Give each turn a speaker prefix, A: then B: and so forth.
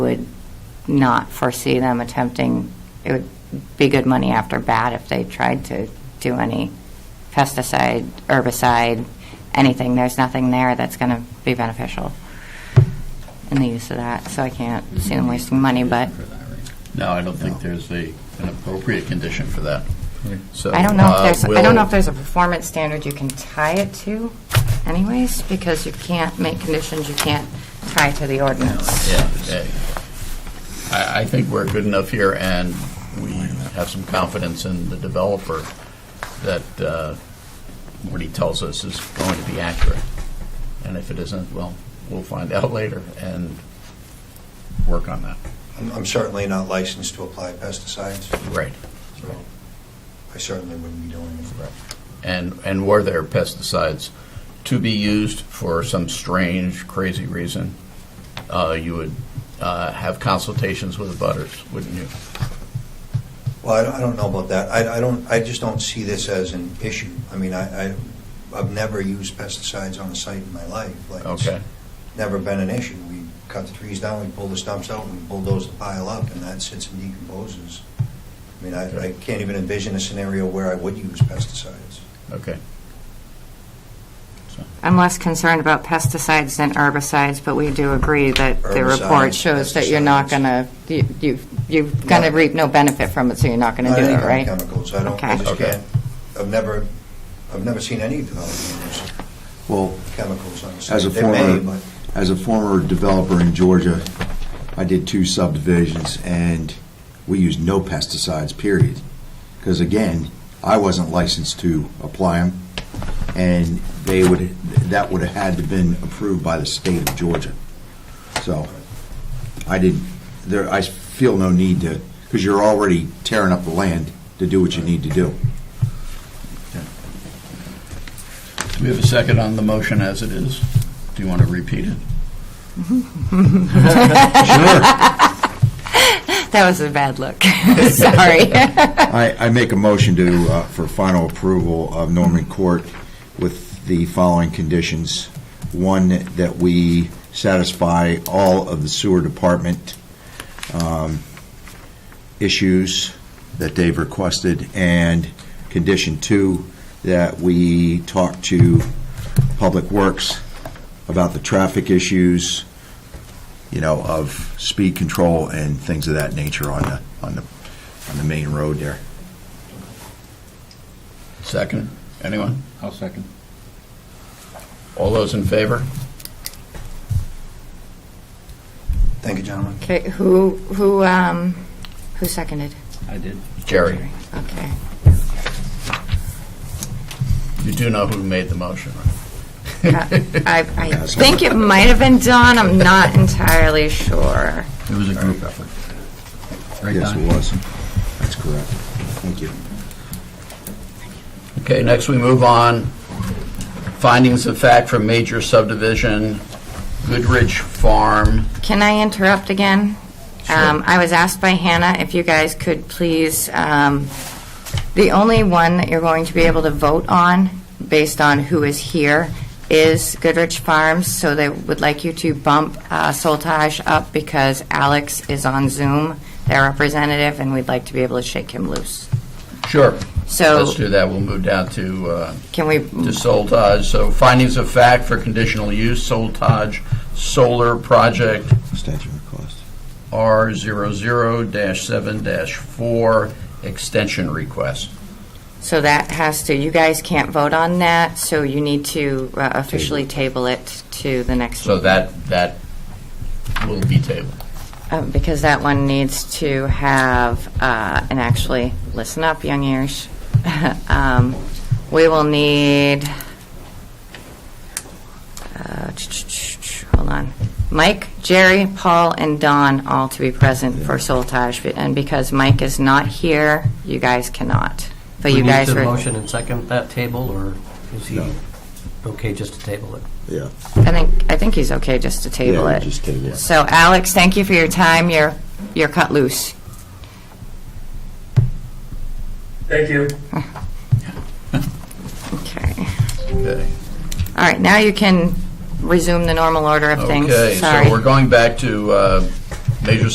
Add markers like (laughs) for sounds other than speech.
A: not foresee them attempting, it would be good money after bad if they tried to do any pesticide, herbicide, anything. There's nothing there that's going to be beneficial in the use of that, so I can't see them wasting money, but
B: No, I don't think there's a, an appropriate condition for that. So,
A: I don't know
B: uh,
A: if there's, I
B: we'll-
A: don't know if there's a performance standard you can tie it to anyways, because you can't make conditions you can't tie to the ordinance.
B: Yeah, yeah. I, I think we're good enough here, and we have some confidence in the developer that uh, what he tells us is going to be accurate. And if it isn't, well, we'll find out (laughs) later and work on that.
C: I'm I'm certainly not licensed to apply pesticides,
B: Right.
C: so I certainly wouldn't be doing it.
B: And, and were there pesticides to be used for some strange, crazy reason, uh, you would uh, have consultations with the butters, wouldn't you?
C: Well, I don't- I don't know about that. I I don't, I just don't see this as an issue. I mean, I, I- I've never used pesticides on a site in my life. Like, it's
B: Okay.
C: Never been an issue. We cut the trees down, we pull the stumps out, we bulldoze the pile up, and that sits and decomposes. I mean, I I can't even envision a scenario where I would use pesticides.
B: Okay.
A: I'm less concerned about pesticides than herbicides, but we do agree that the report
C: Herbicides,
A: shows that you're not going to, you, you're going to
C: No.
A: reap no benefit from it, so you're not going to
C: Not
A: do
C: any
A: it,
C: kind
A: right?
C: of Chemicals, I don't,
A: Okay.
C: I just
B: Okay.
C: can't, I've never, I've never seen any development use
D: Well,
C: chemicals on the site.
D: as a
C: They may,
D: former,
C: but-
D: as a former developer in Georgia, I did two subdivisions, and we used no pesticides, period. Because again, I wasn't licensed to apply them, and they would, that would have had to been approved by the state of Georgia. So, I didn't, there, I feel no need to, because you're already tearing up the land to do what you need to do.
B: Do we have a second on the motion as it is? Do you want to repeat it?
A: That was a bad look. Sorry.
D: I, I make a motion to, uh, for final approval of Norman Court with the following conditions. One, that we satisfy all of the sewer department um, issues that they've requested, and condition two, that we talk to Public Works about the traffic issues, you know, of speed control and things of that nature on the, on the, on the main road there.
B: Second? Anyone? I'll second. All those in favor?
C: Thank you, gentlemen.
A: Okay, who, who, um, who seconded?
B: I did. Jerry,
A: Okay.
B: you do know who made the motion,
A: Uh,
B: (laughs) right?
A: I, I think it might have been Don, I'm not entirely sure.
B: It was a group effort. Right,
D: Yes,
B: Don?
D: it was. That's correct. Thank you.
B: Okay, next we move on. Findings of fact from major subdivision, Goodrich Farm.
A: Can I interrupt again? Um, I was asked by Hannah if you guys could please, um, the only one that you're going to be able to vote on, based on who is here, is Goodrich Farms, so they would like you to bump uh, Soltage up because Alex is on Zoom, their representative, and we'd like to be able to shake him loose.
B: Sure.
A: So
B: Let's do that. We'll move down to, uh,
A: can we,
B: to Soltage. So findings of fact for conditional use, Soltage Solar Project,
D: Statute of cost.
B: R00-7-4 extension request.
A: so that has to, you guys can't vote on that, so you need to uh, officially table it to the next
B: So that, that will be tabled.
A: Um, Because that one needs to have, uh, and actually, listen up, young ears. (laughs) Um, We will need, uh, hold on, Mike, Jerry, Paul, and Don all to be present for Soltage. And because Mike is not here, you guys cannot. But you guys
E: We need
A: were,
E: to motion and second that table, or is he
D: No.
E: okay just to table it?
D: Yeah.
A: I think, I think he's okay just to table
D: Yeah,
A: it.
D: we just table it.
A: So Alex, thank you for your time. You're, you're cut loose.
F: Thank you.
A: Okay. Oh,
B: Okay.
A: All right, now you can resume the normal order of things.
B: Okay,
A: Sorry.
B: so we're going back to uh, major